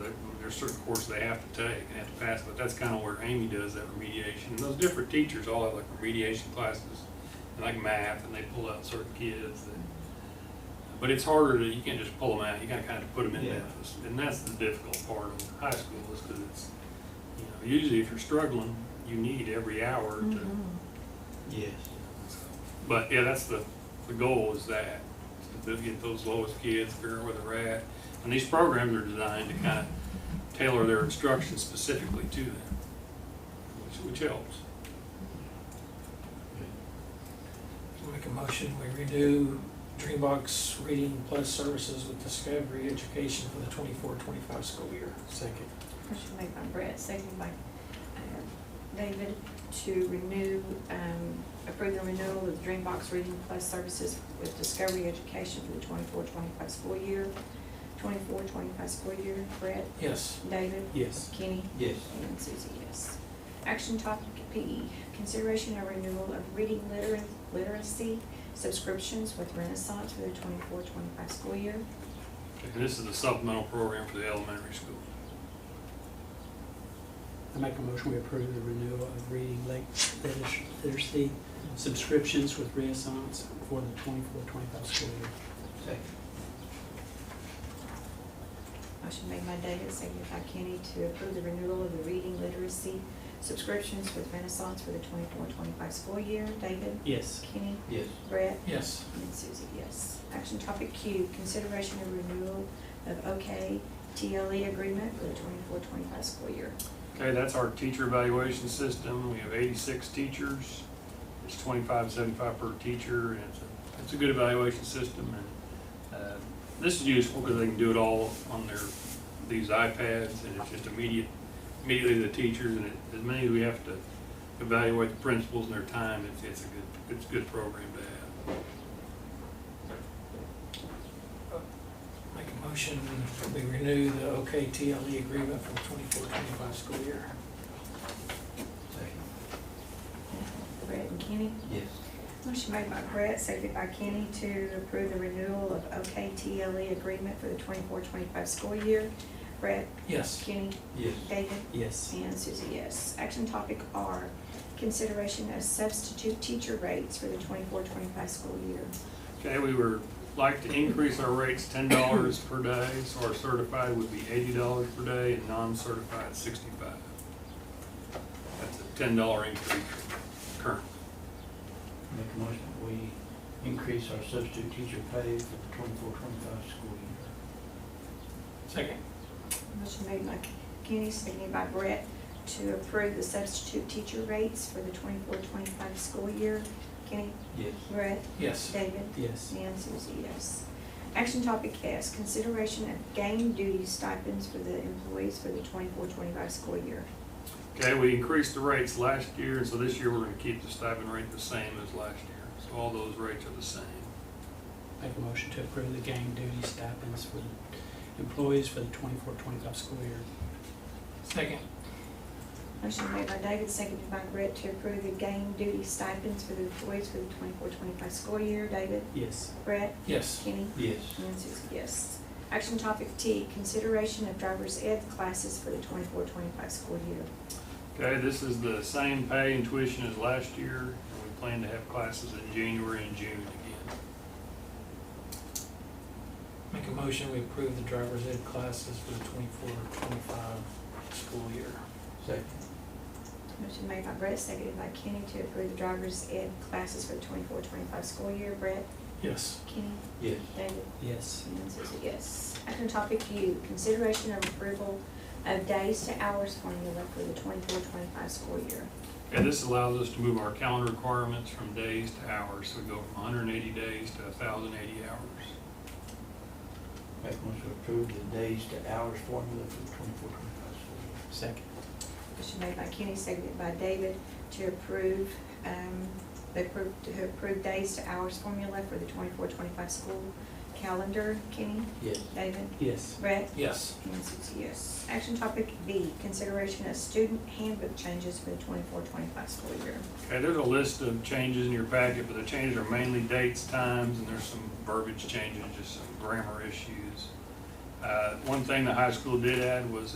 they- there's certain courses they have to take and have to pass, but that's kind of where Amy does that remediation. And those different teachers all have like remediation classes, and like math, and they pull out certain kids. that- But it's harder to, you can't just pull them out, you gotta kind of put them in Yeah. Memphis. And that's the difficult part of high school is because it's, you know, usually if you're struggling, you need every hour to Yes. but yeah, that's the, the goal is that, is to get those lowest kids, figure out where they're at. And these programs are designed to kind of tailor their instruction specifically to them, which, which helps. Make a motion, we redo Dreambox Reading Plus Services with Discovery Education for the 24-25 school year. Second. Motion made by Brett, seconded by uh, David to renew, um, approve the renewal of Dreambox Reading Plus Services with Discovery Education for the 24-25 school year. 24-25 school year. Brett, Yes. David, Yes. Kenny, Yes. and Susie, yes. Action topic P, E, consideration of renewal of reading liter- literacy subscriptions with Renaissance for the 24-25 school year. And this is the supplemental program for the elementary school. I make a motion we approve the renewal of reading late liter- literacy subscriptions with Renaissance for the 24-25 school year. Second. Motion made by David, seconded by Kenny to approve the renewal of the reading literacy subscriptions with Renaissance for the 24-25 school year. David? Yes. Kenny? Yes. Brett? Yes. And Susie, yes. Action topic Q, consideration of renewal of OK TLE E agreement for the 24-25 school year. Okay, that's our teacher evaluation system. We have eighty-six teachers. It's twenty-five, seventy-five per teacher, and it's a, it's a good evaluation system, and, uh, this is useful because they can do it all on their, these iPads, and it's just immediate, immediately the teachers, and it- as many as we have to evaluate the principals and their time, it's, it's a good, it's a good program to have. Make a motion, we renew the OKTLE E agreement for the 24-25 school year. Second. Brett and Kenny? Yes. Motion made by Brett, seconded by Kenny to approve the renewal of OK TLE E agreement for the 24-25 school year. Brett? Yes. Kenny? Yes. David? Yes. And Susie, yes. Action topic R, consideration of substitute teacher rates for the 24-25 school year. Okay, we were, like to increase our rates ten dollars per day, so our certified would be eighty dollars per day and non-certified sixty-five. That's a ten dollar increase current. Make a motion that we increase our substitute teacher pay for the twenty-four, twenty-five school year. Second. Motion made by Kenny, seconded by Brett, to approve the substitute teacher rates for the 24-25 school year. Kenny, Yes. Brett, Yes. David, Yes. and Susie, yes. Action topic S, consideration of game duty stipends for the employees for the 24-25 school year. Okay, we increased the rates last year, and so this year we're gonna keep the stipend rate the same as last year. So all those rates are the same. Make a motion to approve the gang duty stipends for the employees for the 24-25 school year. Second. Motion made by David, seconded by Brett to approve the game duty stipends for the employees for the 24-25 school year. David, Yes. Brett, Yes. Kenny, Yes. and Susie, yes. Action topic T, consideration of driver's ed classes for the 24-25 school year. Okay, this is the same pay and tuition as last year, and we plan to have classes in January and June again. Make a motion, we approve the driver's ed classes for the 24-25 school year. Second. Motion made by Brett, seconded by Kenny to approve the driver's ed classes for the 24-25 school year. Brett, Yes. Kenny, Yes. David, Yes. and Susie, yes. Action topic U, consideration of approval of days to hours formula for the 24-25 school year. And this allows us to move our calendar requirements from days to hours, so we go from hundred and eighty days to thousand eighty hours. Make a motion to approve the days to hours formula for the twenty-four, twenty-five school year. Second. Motion made by Kenny, seconded by David to approve, um, the appro- to approve days to hours formula for the 24-25 school calendar. Kenny, Yes. David, Yes. Brett, Yes. and Susie, yes. Action topic B, consideration of student handbook changes for the 24-25 school year. Okay, there's a list of changes in your packet, but the changes are mainly dates, times, and there's some verbiage changes, just some grammar issues. Uh, One thing the high school did add was